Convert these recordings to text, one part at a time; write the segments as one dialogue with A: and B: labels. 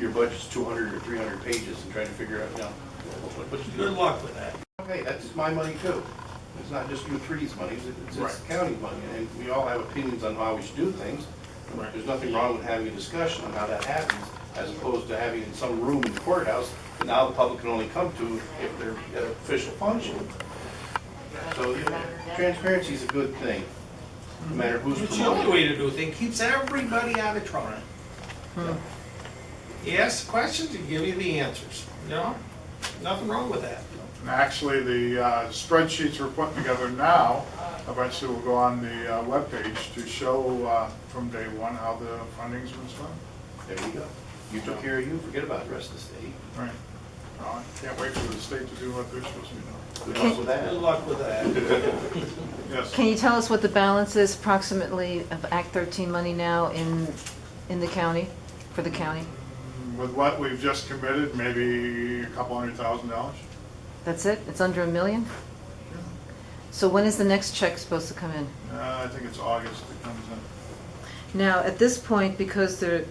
A: your budget's two hundred or three hundred pages and trying to figure out, you know, what- what you
B: Good
A: do.
B: luck with that.
A: Okay, that's my money too. It's not just you three's money, it's, it's
B: Right.
A: county money, and we all have opinions on how we should do things.
B: Right.
A: There's nothing wrong with having a discussion on how that happens, as opposed to having it in some room in the courthouse that now the public can only come to if they're at an official function. So yeah, transparency is a good thing, no matter who's
B: It's the only
A: promoting. it.
B: way to do things, keeps everybody out of trouble. You ask questions, and give you the answers, you know? Nothing wrong with that.
C: And actually, the uh, spreadsheets we're putting together now, eventually will go on the uh, webpage to show uh, from day one how the funding's been spent.
A: There you go. You took care of you, forget about the rest of the state.
C: Right. Well, I can't wait for the state to do what they're supposed to be doing.
A: Good luck with that.
B: Good luck with that.
C: Yes,
D: Can you tell us what the balance is approximately of Act 13 money now in, in the county, for the county?
C: with what we've just committed, maybe a couple hundred thousand dollars.
D: That's it? It's under a million? So when is the next check supposed to come in?
C: Uh, I think it's August it comes in.
D: Now, at this point, because the,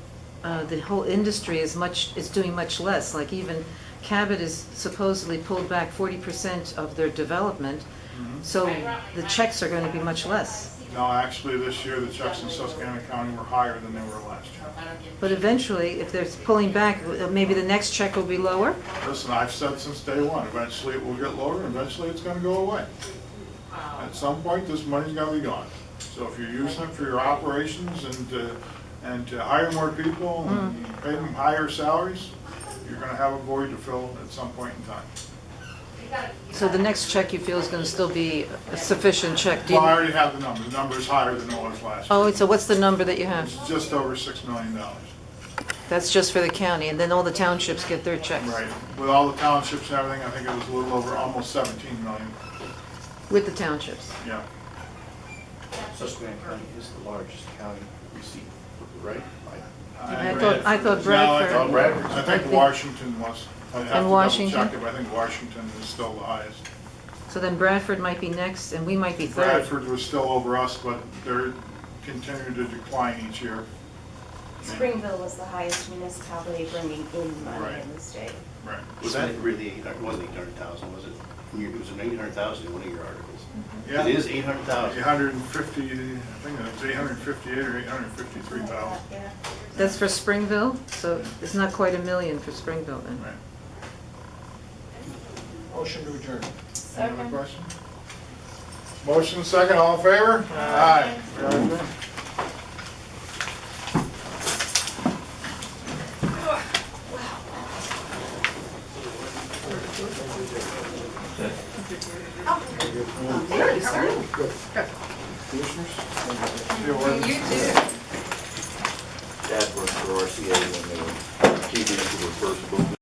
D: uh, the whole industry is much, is doing much less, like even Cabot is supposedly pulled back forty percent of their development, so the checks are gonna be much less.
C: No, actually, this year, the checks in Susquehanna County were higher than they were last year.
D: But eventually, if they're pulling back, uh, maybe the next check will be lower?
C: Listen, I've said since day one, eventually it will get lower, and eventually it's gonna go away. At some point, this money's gotta be gone. So if you're using it for your operations and to, and to hire more people and pay them higher salaries, you're gonna have a void to fill at some point in time.
D: So the next check you feel is gonna still be a sufficient check? Do you-
C: Well, I already have the number, the number's higher than it was last year.
D: Oh, so what's the number that you have?
C: It's just over six million dollars.
D: That's just for the county, and then all the townships get their checks?
C: Right, with all the townships and everything, I think it was a little over, almost seventeen million,
D: With the townships?
C: yeah.
A: Susquehanna County is the largest county receipt, right? I-
D: I
C: agree.
D: thought, I thought
C: No, I
D: Bradford.
C: thought
A: Bradford.
C: I think Washington was, I'd have to
D: And
C: double check
D: Washington?
C: it, but I think Washington is still the highest.
D: So then Bradford might be next, and we might be third.
C: Bradford was still over us, but they're continuing to decline each year.
E: Springville was the highest municipality bringing in money in
C: Right.
E: the state.
C: Right.
A: Was that really, eight hundred? it wasn't eight hundred thousand, was it? You- It was an eight hundred thousand in one of your articles.
C: Yeah.
A: It is eight hundred thousand.
C: Eight hundred and fifty, I think it's eight hundred and fifty-eight or eight hundred and fifty-three thousand.
E: Yeah.
D: That's for Springville, so it's not quite a million for Springville then.
C: Right.
B: Motion to adjourn.
C: Any other questions? Motion second, all in favor? Aye. We are adjourned.
F: That was for RCA when they were keeping it to the first book